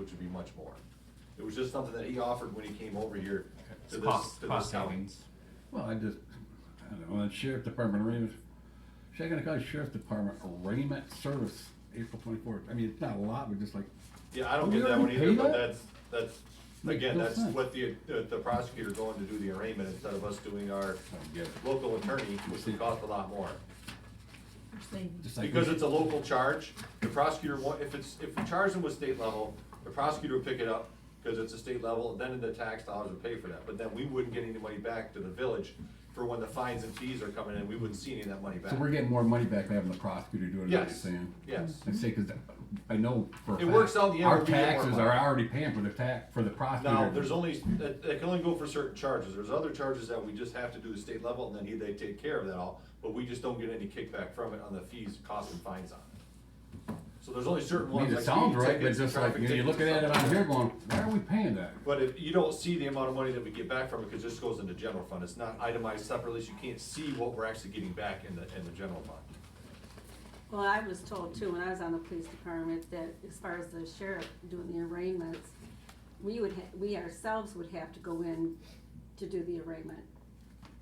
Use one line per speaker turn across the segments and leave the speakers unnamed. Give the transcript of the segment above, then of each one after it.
which would be much more. It was just something that he offered when he came over here to
It's
this,
cost,
to this
cost
county.
savings.
Well, I just, I don't know, the sheriff department, arraignment, should I gotta call sheriff department arraignment service April twenty-fourth? I mean, it's not a lot, but just like,
Yeah, I don't
We
get that
already
one either,
pay
but
that?
that's, that's,
Makes
again,
no
that's
sense.
what the, the the prosecutor going to do the arraignment instead of us doing our
I don't get it.
local attorney, which would cost a lot more.
You're saying-
Just like we
Because
should-
it's a local charge, the prosecutor, wa- if it's, if we charge them with state level, the prosecutor would pick it up, because it's a state level, and then the tax dollars would pay for that, but then we wouldn't get any money back to the village for when the fines and fees are coming in, we wouldn't see any of that money back.
So we're getting more money back by having the prosecutor do it, is what you're
Yes,
saying?
yes.
I say, cause I know for a
It works
fact
out in the end,
Our
we'll be getting more
taxes
money.
are already paying for the tax, for the prosecutor.
Now, there's only, that, that can only go for certain charges, there's other charges that we just have to do the state level, and then he, they take care of that all, but we just don't get any kickback from it on the fees, costs and fines on it. So there's only certain
I mean,
ones.
it
like
sounds
speeding
right, but
tickets,
just like,
traffic
you know, you're
tickets
looking
and
at it
stuff like
on
that.
here going, why are we paying that?
But if, you don't see the amount of money that we get back from it, because this goes into general fund, it's not itemized separately, so you can't see what we're actually getting back in the, in the general fund.
Well, I was told too, when I was on the police department, that as far as the sheriff doing the arraignments, we would, ha- we ourselves would have to go in to do the arraignment.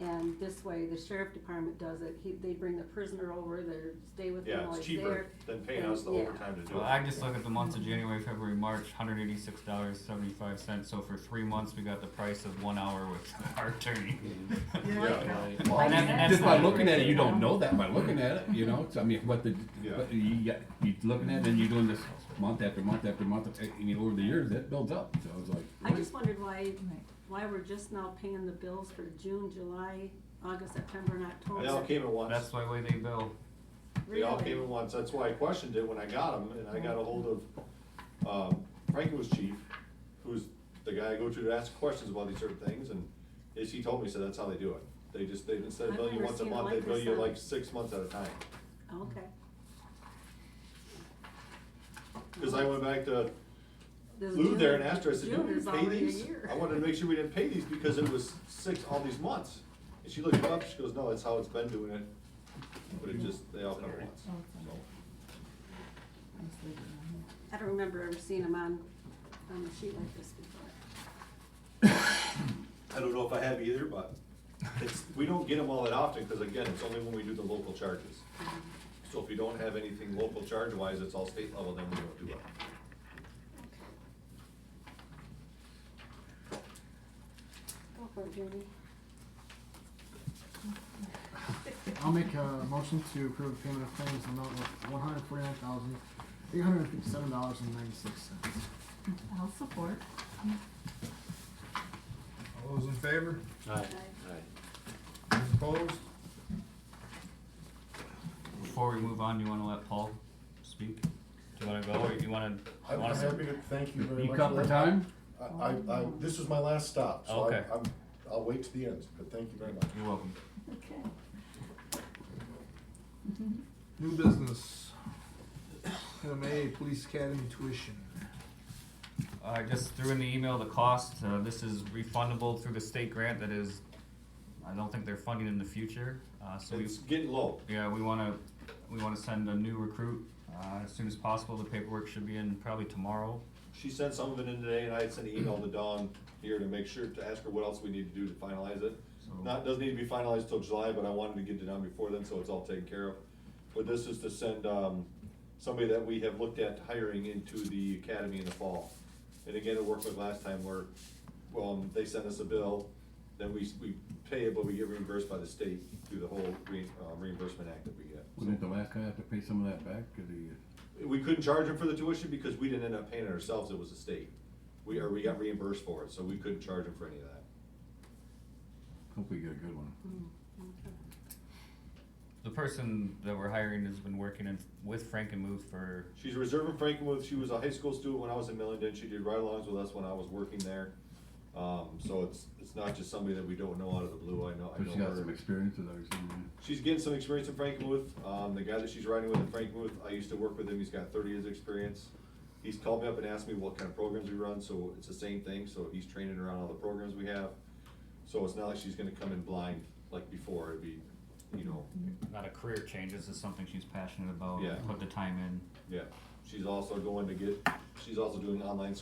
And this way, the sheriff department does it, he, they bring the prisoner over, they stay with him
Yeah,
while
it's
he's
cheaper
there.
than paying
and-
us the
yeah.
overtime to do
Well, I
it.
just look at the months of January, February, March, hundred eighty-six dollars, seventy-five cents, so for three months, we got the price of one hour with our attorney.
Yeah,
And that- and that's
Just by
not
looking at it,
right.
you don't know that by looking at it, you know, it's, I mean, what the,
Yeah.
what you, got- you looking at it, and you're doing this month after month after month, eh, I mean, over the years, that builds up, so I was like.
I just wondered why, why we're just now paying the bills for June, July, August, September, and October.
they all came at once.
That's the way they bill.
They all
Really?
came at once, that's why I questioned it when I got them, and I got a hold of, um, Franco's chief, who's the guy I go to to ask questions about these certain things, and as he told me, he said that's how they do it. They just, they, instead of
I've
billing you
never
once a
seen it
month, they
like
bill
this,
you
huh?
like six months at a time.
Okay.
Cause I went back to
This
Lou there
June-
and asked her, I said, you
June is
didn't pay
already a
these?
year.
I wanted to make sure we didn't pay these because it was six, all these months. And she looked it up, she goes, no, that's how it's been doing it, but it just, they all come at once, so.
I don't remember ever seeing them on, on a sheet like this before.
I don't know if I have either, but it's, we don't get them all that often, cause again, it's only when we do the local charges. So if you don't have anything local charge wise, it's all state level, then we don't do it.
Go for it, Judy.
I'll make a motion to approve payment of claims in the amount of one hundred forty-nine thousand, eight hundred and fifty-seven dollars and ninety-six cents.
I'll support.
All those in favor?
Aye.
Those Opposed?
Before we move on, you wanna let Paul speak? Do you wanna go, or you wanna?
I'm
wanna-
happy to, thank you very much.
You cut for time?
I, I, I, this was my last stop, so I,
Okay.
I'm, I'll wait to the end, but thank you very much.
You're welcome.
Okay.
New business. Item A, Police Academy tuition.
Uh, I just threw in the email the cost, uh, this is refundable through the state grant that is, I don't think they're funding in the future, uh, so we.
It's getting low.
Yeah, we wanna, we wanna send a new recruit, uh, as soon as possible, the paperwork should be in probably tomorrow.
She sent some of it in today, and I had sent an email to Dawn here to make sure, to ask her what else we need to do to finalize it.
So-
Not, doesn't need to be finalized till July, but I wanted to get it done before then, so it's all taken care of. But this is to send, um, somebody that we have looked at hiring into the academy in the fall. And again, it worked like last time where, um, they sent us a bill, then we, we pay it, but we get reimbursed by the state through the whole re- uh, reimbursement act that we get.
Wasn't it the last guy have to pay some of that back, cause he,
We couldn't charge them for the tuition because we didn't end up paying it ourselves, it was the state. We, or we got reimbursed for it, so we couldn't charge them for any of that.
hope we get a good one.
The person that we're hiring has been working in, with Frank and Move for,
She's a reserve in Frankenmuth, she was a high school student when I was in Millington, she did ride-alongs with us when I was working there. Um, so it's, it's not just somebody that we don't know out of the blue, I know, I
But
know
she got some
her.
experience with ours.
She's getting some experience in Frankenmuth, um, the guy that she's riding with in Frankenmuth, I used to work with him, he's got thirty years' experience. He's called me up and asked me what kind of programs we run, so it's the same thing, so he's training around all the programs we have. So it's not like she's gonna come in blind like before, it'd be, you know,
not a career change, this is something she's passionate about,
Yeah.
put the time in.
yeah. She's also going to get, she's also doing online